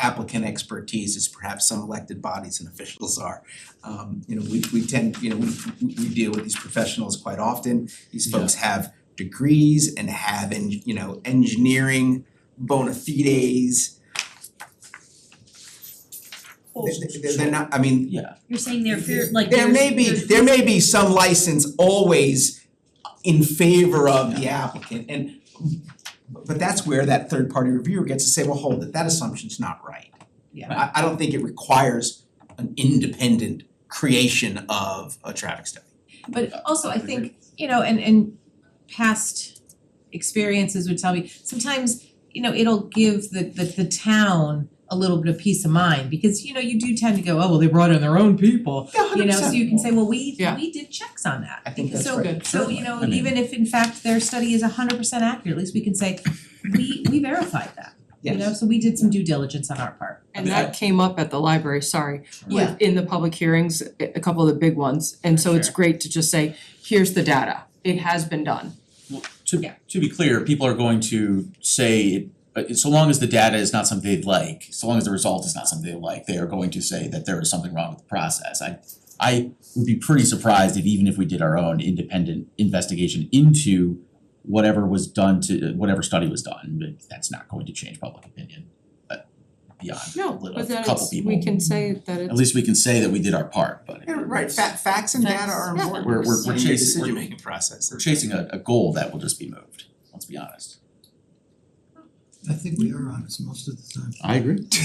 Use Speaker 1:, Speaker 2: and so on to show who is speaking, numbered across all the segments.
Speaker 1: applicant expertise as perhaps some elected bodies and officials are. Um you know, we we tend, you know, we we we deal with these professionals quite often. These folks have degrees and have en- you know, engineering bona fides. They- they- They're not, I mean,
Speaker 2: Yeah,
Speaker 3: You're saying they're fear, like
Speaker 1: There
Speaker 3: there's
Speaker 1: may be,
Speaker 3: there's-
Speaker 1: there may be some license always in favor of the applicant and but that's where that third party reviewer gets to say, well, hold it, that assumption's not right.
Speaker 2: yeah,
Speaker 1: I I don't think it requires an independent creation of a traffic study.
Speaker 4: But also, I think, you know, and and past experiences would tell me, sometimes, you know, it'll give the the the town a little bit of peace of mind, because, you know, you do tend to go, oh, well, they brought in their own people, you know, so you can say, well, we
Speaker 5: Yeah.
Speaker 4: we did checks on that.
Speaker 1: I think that's
Speaker 4: So-
Speaker 1: right.
Speaker 4: So, you know,
Speaker 2: I mean-
Speaker 4: even if in fact their study is hundred percent accurate, at least we can say, we we verified that, you know,
Speaker 1: Yes,
Speaker 4: so we did some due diligence on our part.
Speaker 5: And that came up at the library, sorry,
Speaker 4: Yeah.
Speaker 5: with in the public hearings, a a couple of the big ones. And so it's
Speaker 2: Sure.
Speaker 5: great to just say, here's the data, it has been done.
Speaker 2: well, to
Speaker 4: Yeah.
Speaker 2: to be clear, people are going to say it, but so long as the data is not something they like, so long as the result is not something they like, they are going to say that there is something wrong with the process. I I would be pretty surprised if even if we did our own independent investigation into whatever was done to, uh, whatever study was done, but that's not going to change public opinion. uh, Beyond a
Speaker 5: No,
Speaker 2: little,
Speaker 5: but then
Speaker 2: couple
Speaker 5: it's,
Speaker 2: people.
Speaker 5: we can say that
Speaker 2: At
Speaker 5: it's,
Speaker 2: least we can say that we did our part, but
Speaker 1: Yeah, right, fa- facts and data are
Speaker 5: Yeah.
Speaker 1: important.
Speaker 2: We're- we're- we're
Speaker 1: In your
Speaker 2: chasing- we're-
Speaker 1: decision-making process.
Speaker 2: we're chasing a a goal that will just be moved, let's be honest.
Speaker 6: I think we are honest most of the time.
Speaker 2: I agree.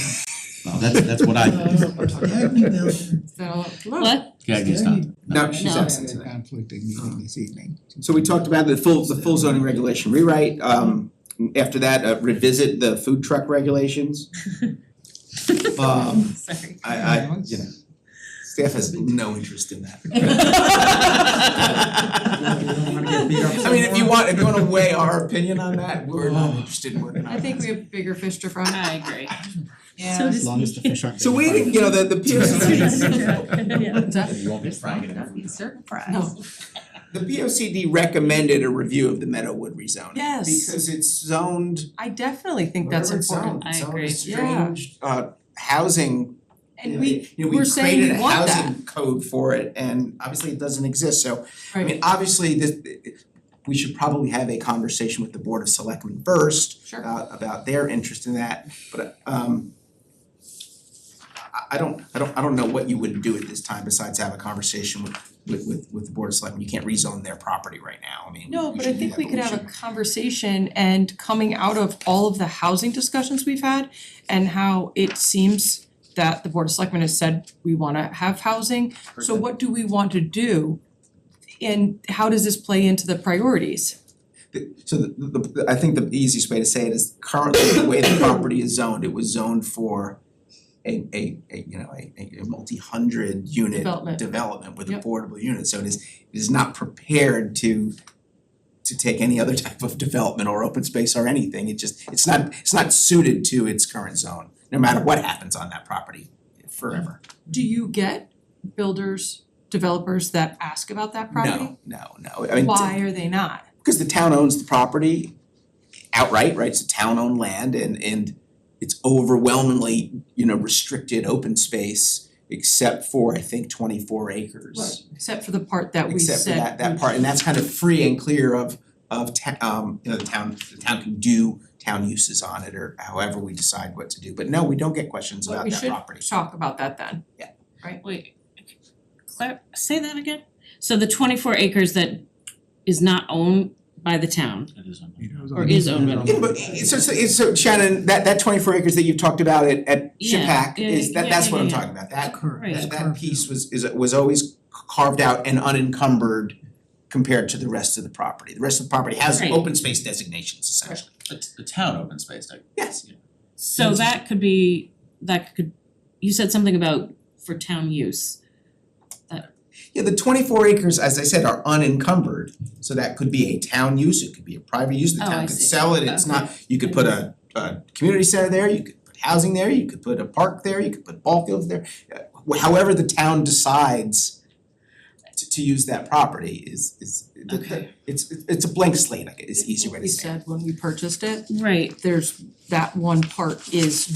Speaker 2: Well, that's that's what I think.
Speaker 6: Gag me down there.
Speaker 5: so, look,
Speaker 3: What?
Speaker 2: Gag is not.
Speaker 1: No, she's
Speaker 3: No.
Speaker 1: absent today.
Speaker 6: Conflicting meeting this evening.
Speaker 1: So we talked about the full, the full zoning regulation rewrite, um, after that, uh, revisit the food truck regulations. Um,
Speaker 4: Sorry.
Speaker 1: I, I, you know, staff has no interest in that. I mean, if you want, if you wanna weigh our opinion on that, we're not interested in working on
Speaker 5: I
Speaker 1: that.
Speaker 5: think we have bigger fish to fry.
Speaker 4: I agree. Yeah.
Speaker 3: So
Speaker 7: As long as the fish aren't.
Speaker 1: So we, didn't- you know, the, the
Speaker 3: Yeah,
Speaker 1: POCD,
Speaker 3: yeah.
Speaker 2: You won't be frying it.
Speaker 4: That'd be certain fries.
Speaker 5: No.
Speaker 1: the POCD recommended a review of the Meadowwood rezoning.
Speaker 5: Yes.
Speaker 1: Because it's zoned
Speaker 5: I definitely think that's
Speaker 1: Whatever it's zoned,
Speaker 5: important.
Speaker 1: it's
Speaker 3: I
Speaker 1: zoned
Speaker 3: agree.
Speaker 1: as
Speaker 5: Yeah.
Speaker 1: strange, uh housing.
Speaker 5: And
Speaker 1: you know,
Speaker 5: we,
Speaker 1: you know, we
Speaker 5: we're saying we want
Speaker 1: created a housing code for it and obviously it doesn't exist, so I
Speaker 5: Right.
Speaker 1: mean, obviously this we should probably have a conversation with the Board of Selectmen first
Speaker 5: sure,
Speaker 1: about about their interest in that, but um I I don't I don't I don't know what you would do at this time besides have a conversation with with with with the Board of Selectmen. You can't rezone their property right now, I mean,
Speaker 5: no,
Speaker 1: we
Speaker 5: but I
Speaker 1: should do
Speaker 5: think
Speaker 1: that,
Speaker 5: we
Speaker 1: but
Speaker 5: could have a
Speaker 1: shouldn't.
Speaker 5: conversation and coming out of all of the housing discussions we've had and how it seems that the Board of Selectmen has said, we wanna have housing, So what do we want to do? And how does this play into the priorities?
Speaker 1: The- So the the the I think the easiest way to say it is currently the way the property is zoned, it was zoned for a a a you know, a a a multi-hundred unit
Speaker 5: Development.
Speaker 1: development with
Speaker 5: Yep.
Speaker 1: affordable units, so it is it is not prepared to to take any other type of development or open space or anything, it just it's not it's not suited to its current zone, no matter what happens on that property forever.
Speaker 5: Do you get builders, developers that ask about that property?
Speaker 1: No, no, no, I mean,
Speaker 5: Why are they not?
Speaker 1: because the town owns the property outright, right? It's a town owned land and and it's overwhelmingly, you know, restricted open space except for I think twenty four acres.
Speaker 5: Except for the part that we said.
Speaker 1: Except for that that part, and that's kind of free and clear of of ta- um, you know, the town, the town can do town uses on it or however we decide what to do. But no, we don't get questions
Speaker 5: But
Speaker 1: about
Speaker 5: we
Speaker 1: that
Speaker 5: should
Speaker 1: property.
Speaker 5: talk about that then.
Speaker 3: Wait, clar- say that again? So the twenty-four acres that is not owned by the town, Or is owned by the-
Speaker 1: Yeah, but it's so it's so Shannon, that that twenty four acres that you've talked about at at
Speaker 3: Yeah,
Speaker 1: Shapack
Speaker 3: yeah,
Speaker 1: is that
Speaker 3: yeah,
Speaker 1: that's
Speaker 3: yeah,
Speaker 1: what I'm
Speaker 3: yeah, yeah.
Speaker 1: talking about, that
Speaker 3: Right.
Speaker 1: that that piece was is was always carved out and unencumbered compared to the rest of the property. The rest of the property has
Speaker 3: Right.
Speaker 1: open space designations essentially.
Speaker 2: It's the town open space, like,
Speaker 1: Yes.
Speaker 3: so that could be, that could, you said something about for town use.
Speaker 1: Yeah, the twenty four acres, as I said, are unencumbered, so that could be a town use, it could be a private use, the
Speaker 3: Oh, I
Speaker 1: town could
Speaker 3: see.
Speaker 1: sell it, it's not, you could put a a community center there, you could put housing there, you could put a park there, you could put ball fields there. Uh, However, the town decides to to use that property is is the- the-
Speaker 3: Okay.
Speaker 1: it's it's a blank slate, I guess, is the easier way to say it.
Speaker 5: We said when we purchased it,
Speaker 3: Right,
Speaker 5: there's, that one part is